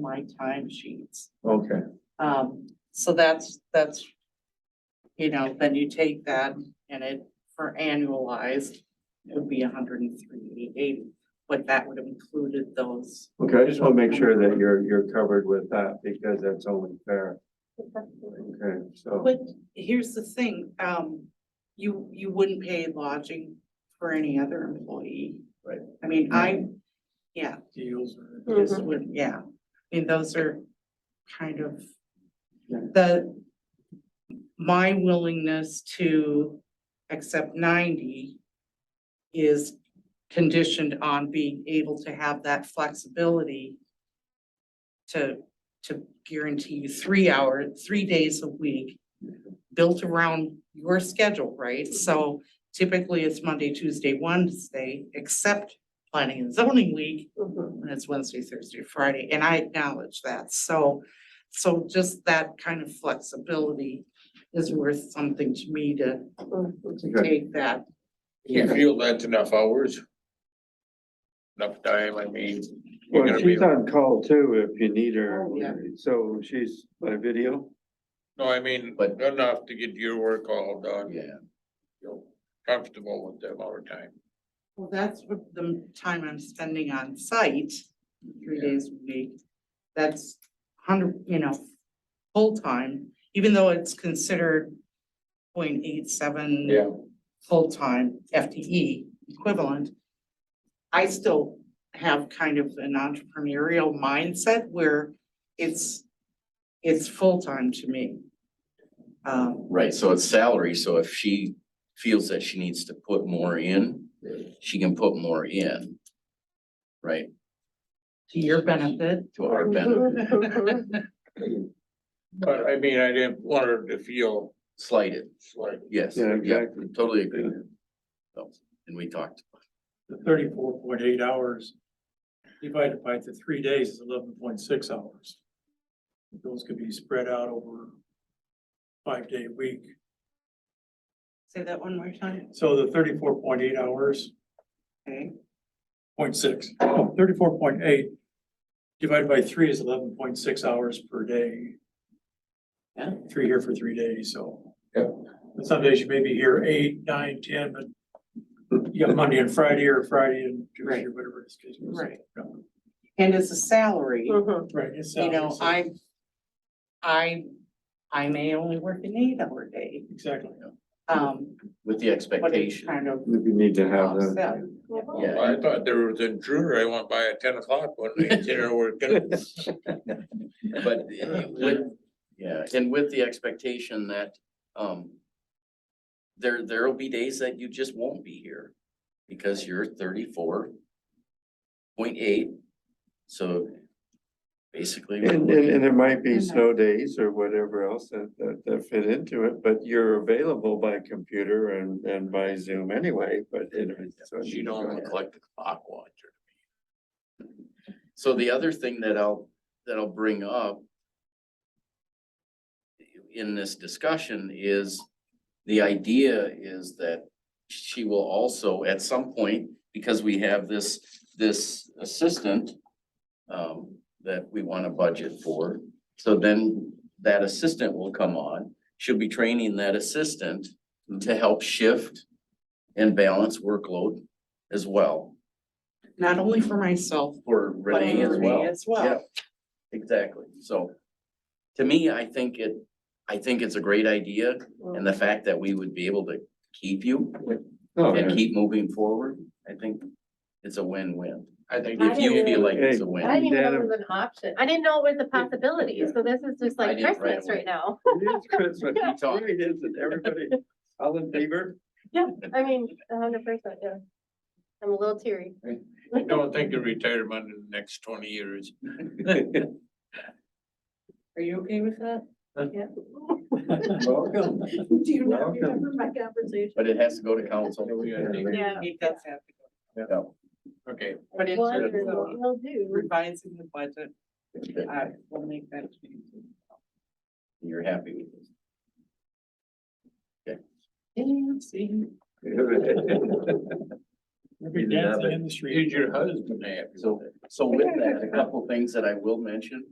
my time sheets. Okay, Um, so that's, that's, you know, then you take that and it, for annualized, it would be a hundred and three eighty, but that would have included those. okay, I just wanna make sure that you're, you're covered with that because that's only fair. Okay, so, But here's the thing, um, you, you wouldn't pay lodging for any other employee. Right. I mean, I, yeah, deals or. just would, yeah, I mean, those are kind of Yeah. the, my willingness to accept ninety is conditioned on being able to have that flexibility to, to guarantee you three hour, three days a week built around your schedule, right? So typically it's Monday, Tuesday, Wednesday, except planning and zoning week, and it's Wednesday, Thursday, Friday, and I acknowledge that, so. So just that kind of flexibility is worth something to me to to Okay. take that. You feel that's enough hours? Enough time, I mean, you're well, gonna be, she's on call too if you need her. Oh, yeah. So she's by video? no, I mean, But- enough to get your work all done. Yeah, You're Comfortable with them all the time. Well, that's what the time I'm spending on site, three Yeah. days a week, that's hundred, you know, full-time, even though it's considered 0.87 full-time FTE equivalent. I still have kind of an entrepreneurial mindset where it's, it's full-time to me. Um, right, so it's salary, so if she feels that she needs to put more in, she can put more in. Right, to your benefit, to our benefit, But I mean, I didn't want her to feel slighted, like, yes, Yeah, yeah, exactly. totally agree. So, and we talked, The thirty-four point eight hours divided by the three days is eleven point six hours. Those could be spread out over five-day week. say that one more time, So the thirty-four point eight hours, okay? point six, oh, thirty-four point eight divided by three is eleven point six hours per day. Yeah. Three here for three days, so. Yeah. And some days you may be here eight, nine, ten, but you got Monday and Friday or Friday and Tuesday, or whatever it's. Right. And it's a salary, you Right, it's. know, I, I, I may only work an eight-hour day, Exactly. um, with the but it's expectation, kind of. If you need to have that. offset. yeah, I thought there was an intruder, I went by at ten o'clock one night, dinner working. But with, yeah, and with the expectation that, um, there, there'll be days that you just won't be here because you're thirty-four point eight, so basically. we're And, and, looking- and it might be And uh, snow days or whatever else that, that, that fit into it, but you're available by computer and, and by Zoom anyway, but it. so- You don't look like the clock watcher. So the other thing that I'll, that I'll bring up in this discussion is, the idea is that she will also, at some point, because we have this, this assistant um, that we want to budget for, so then that assistant will come on. She'll be training that assistant to help shift and balance workload as well Not only for myself, for but Renee as for well. me as well. Yeah, exactly. So to me, I think it, I think it's a great idea and the fact that we would be able to keep you Oh, and yeah. keep moving forward, I think it's a win-win. I think I If you feel like it's a I win. didn't even know Data- it was an option. I didn't know it was a possibility. So this is just I like didn't right Christmas away. right now. It is Christmas. Yeah. It really is, and everybody, all in favor? I mean, a hundred percent, yeah. I'm a little teary. I don't think you'll retire in the next twenty years. Are you okay with that? Welcome. Do you not remember my conversation? But it has to go to council. Yeah. It does have to go, Okay, but in terms of Will do. revising the budget, Okay, I will make that change. You're happy with this. Yeah, see, We'll be Either that, dancing but- in the street. is your husband happy? So, so with that, a couple things that I will mention.